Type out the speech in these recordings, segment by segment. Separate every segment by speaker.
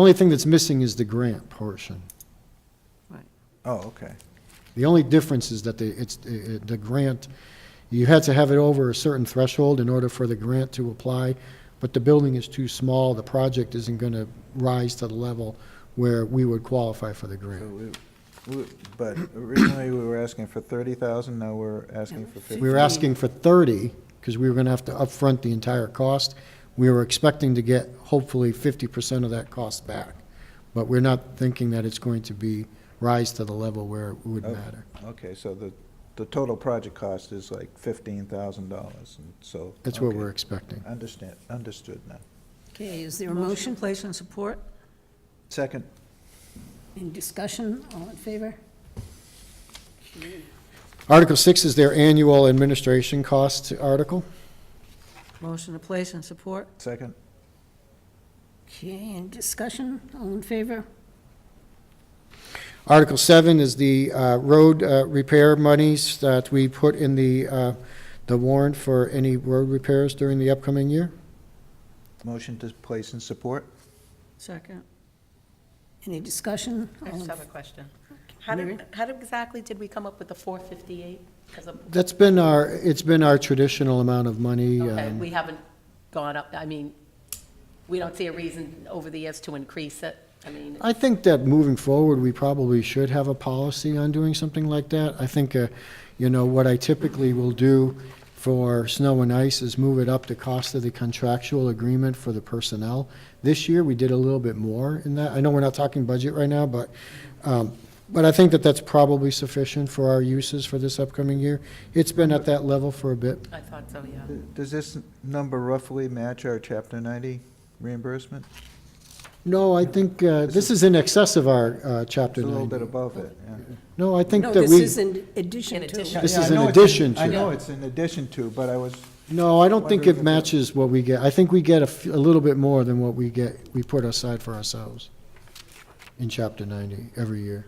Speaker 1: Only thing that's missing is the grant portion.
Speaker 2: Oh, okay.
Speaker 1: The only difference is that the, it's, uh, uh, the grant, you had to have it over a certain threshold in order for the grant to apply, but the building is too small, the project isn't going to rise to the level where we would qualify for the
Speaker 2: So
Speaker 1: grant.
Speaker 2: we- we- But originally, we were asking for thirty thousand, now we're asking for fifty.
Speaker 1: We were asking for 30, because we were going to have to upfront the entire cost. We were expecting to get hopefully 50% of that cost back, but we're not thinking that it's going to be, rise to the level where it would
Speaker 2: Okay.
Speaker 1: matter.
Speaker 2: Okay, so the, the total project cost is like fifteen thousand dollars, and so.
Speaker 1: That's what
Speaker 2: okay.
Speaker 1: we're expecting.
Speaker 2: Understand, understood now.
Speaker 3: Okay, is there a motion?
Speaker 4: place and support?
Speaker 2: Second,
Speaker 3: In discussion, all in favor?
Speaker 1: Article 6 is their annual administration cost article.
Speaker 4: Motion to place and support?
Speaker 2: second,
Speaker 3: Okay, in discussion, all in favor?
Speaker 1: Article 7 is the uh, road uh, repair monies that we put in the, uh, the warrant for any road repairs during the upcoming year.
Speaker 2: motion to place and support?
Speaker 4: Second.
Speaker 3: Any discussion?
Speaker 5: I
Speaker 3: All in-
Speaker 5: just have a question. How
Speaker 3: Mary?
Speaker 5: did, how did- exactly did we come up with the 458? 'Cause of-
Speaker 1: That's been our, it's been our traditional amount of money.
Speaker 5: Okay,
Speaker 1: um,
Speaker 5: we haven't gone up, I mean, we don't see a reason over the years to increase it. I mean,
Speaker 1: I think that moving forward, we probably should have a policy on doing something like that. I think, uh, you know, what I typically will do for snow and ice is move it up to cost of the contractual agreement for the personnel. This year, we did a little bit more in that. I know we're not talking budget right now, but, um, but I think that that's probably sufficient for our uses for this upcoming year. It's been at that level for a bit.
Speaker 5: I thought so, yeah.
Speaker 2: Does this number roughly match our chapter ninety reimbursement?
Speaker 1: No, I think, uh, this is in excess of our, uh,
Speaker 2: It's
Speaker 1: chapter
Speaker 2: a little bit
Speaker 1: ninety.
Speaker 2: above it, yeah.
Speaker 1: No, I think
Speaker 3: No,
Speaker 1: that
Speaker 3: this
Speaker 1: we,
Speaker 3: is in addition
Speaker 5: In
Speaker 3: to.
Speaker 5: addition.
Speaker 1: This
Speaker 2: Yeah, I
Speaker 1: is in
Speaker 2: know it's in-
Speaker 1: addition
Speaker 2: I
Speaker 1: to.
Speaker 2: know it's in addition to, but I was,
Speaker 1: No, I don't think
Speaker 2: Wonder if
Speaker 1: it
Speaker 2: it-
Speaker 1: matches what we get. I think we get a, f- a little bit more than what we get, we put aside for ourselves in chapter ninety every year.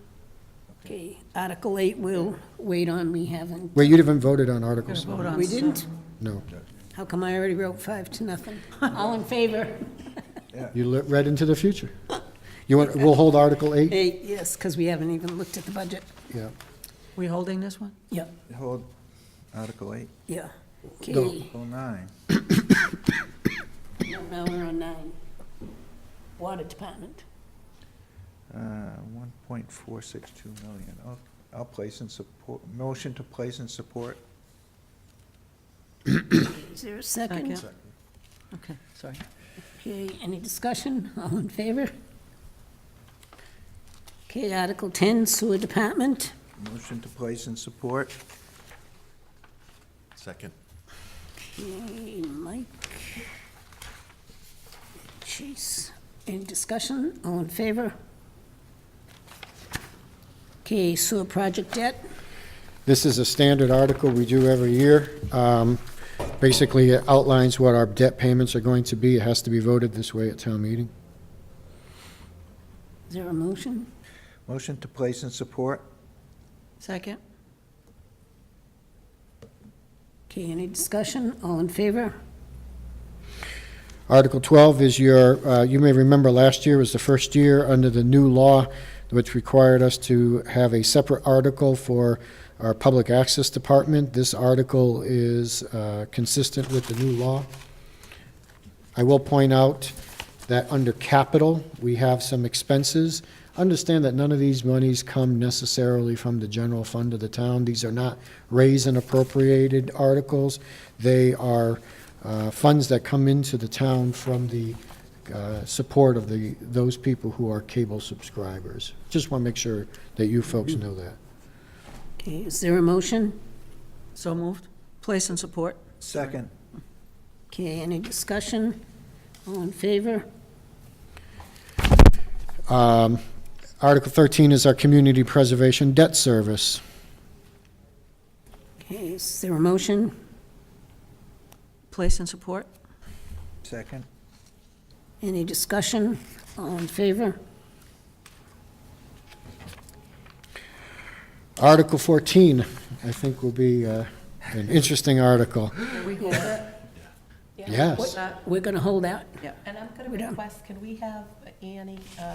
Speaker 3: Okay, Article 8 will wait on, we haven't.
Speaker 1: Wait, you haven't voted on articles?
Speaker 4: Vote on
Speaker 3: We
Speaker 4: some.
Speaker 3: didn't?
Speaker 1: No.
Speaker 3: How come I already wrote five to nothing? All in favor?
Speaker 1: You le- read into the future. You want, we'll hold Article eight?
Speaker 3: Eight, yes, because we haven't even looked at the budget.
Speaker 1: Yeah.
Speaker 4: We holding this one?
Speaker 3: Yeah,
Speaker 2: hold, Article eight,
Speaker 3: yeah.
Speaker 1: No.
Speaker 3: Okay,
Speaker 2: oh nine.
Speaker 3: now we're on nine. Water Department.
Speaker 2: Uh, 1.462 million. I'll- I'll place and support, motion to place and support.
Speaker 3: Is there a second?
Speaker 4: Second. Okay, sorry.
Speaker 3: Okay, any discussion? All in favor? Okay, Article 10, Sewer Department.
Speaker 2: Motion to place and support.
Speaker 6: Second.
Speaker 3: Okay, Mike. Chase. Any discussion? All in favor? Okay, sewer project debt.
Speaker 1: This is a standard article we do every year. Um, basically it outlines what our debt payments are going to be. It has to be voted this way at town meeting.
Speaker 3: Is there a motion?
Speaker 2: Motion to place and support.
Speaker 4: Second?
Speaker 3: Okay, any discussion? All in favor?
Speaker 1: Article 12 is your, uh, you may remember last year was the first year under the new law, which required us to have a separate article for our Public Access Department. This article is uh, consistent with the new law. I will point out that under capital, we have some expenses. Understand that none of these monies come necessarily from the general fund of the town. These are not raise and appropriated articles. They are uh, funds that come into the town from the uh, support of the, those people who are cable subscribers. Just want to make sure that you folks know that.
Speaker 3: Okay, is there a motion?
Speaker 4: So moved? Place and support?
Speaker 2: Second.
Speaker 3: Okay, any discussion? All in favor?
Speaker 1: Um, Article 13 is our community preservation debt service.
Speaker 3: Okay, is there a motion?
Speaker 4: Place and support?
Speaker 2: Second.
Speaker 3: Any discussion? All in favor?
Speaker 1: Article 14, I think will be uh, an interesting article. Yes.
Speaker 5: What-
Speaker 4: That-
Speaker 3: We're going to hold out.
Speaker 4: Yeah.
Speaker 5: And I'm going
Speaker 3: We
Speaker 5: to
Speaker 3: don't.
Speaker 5: request, can we have Annie uh,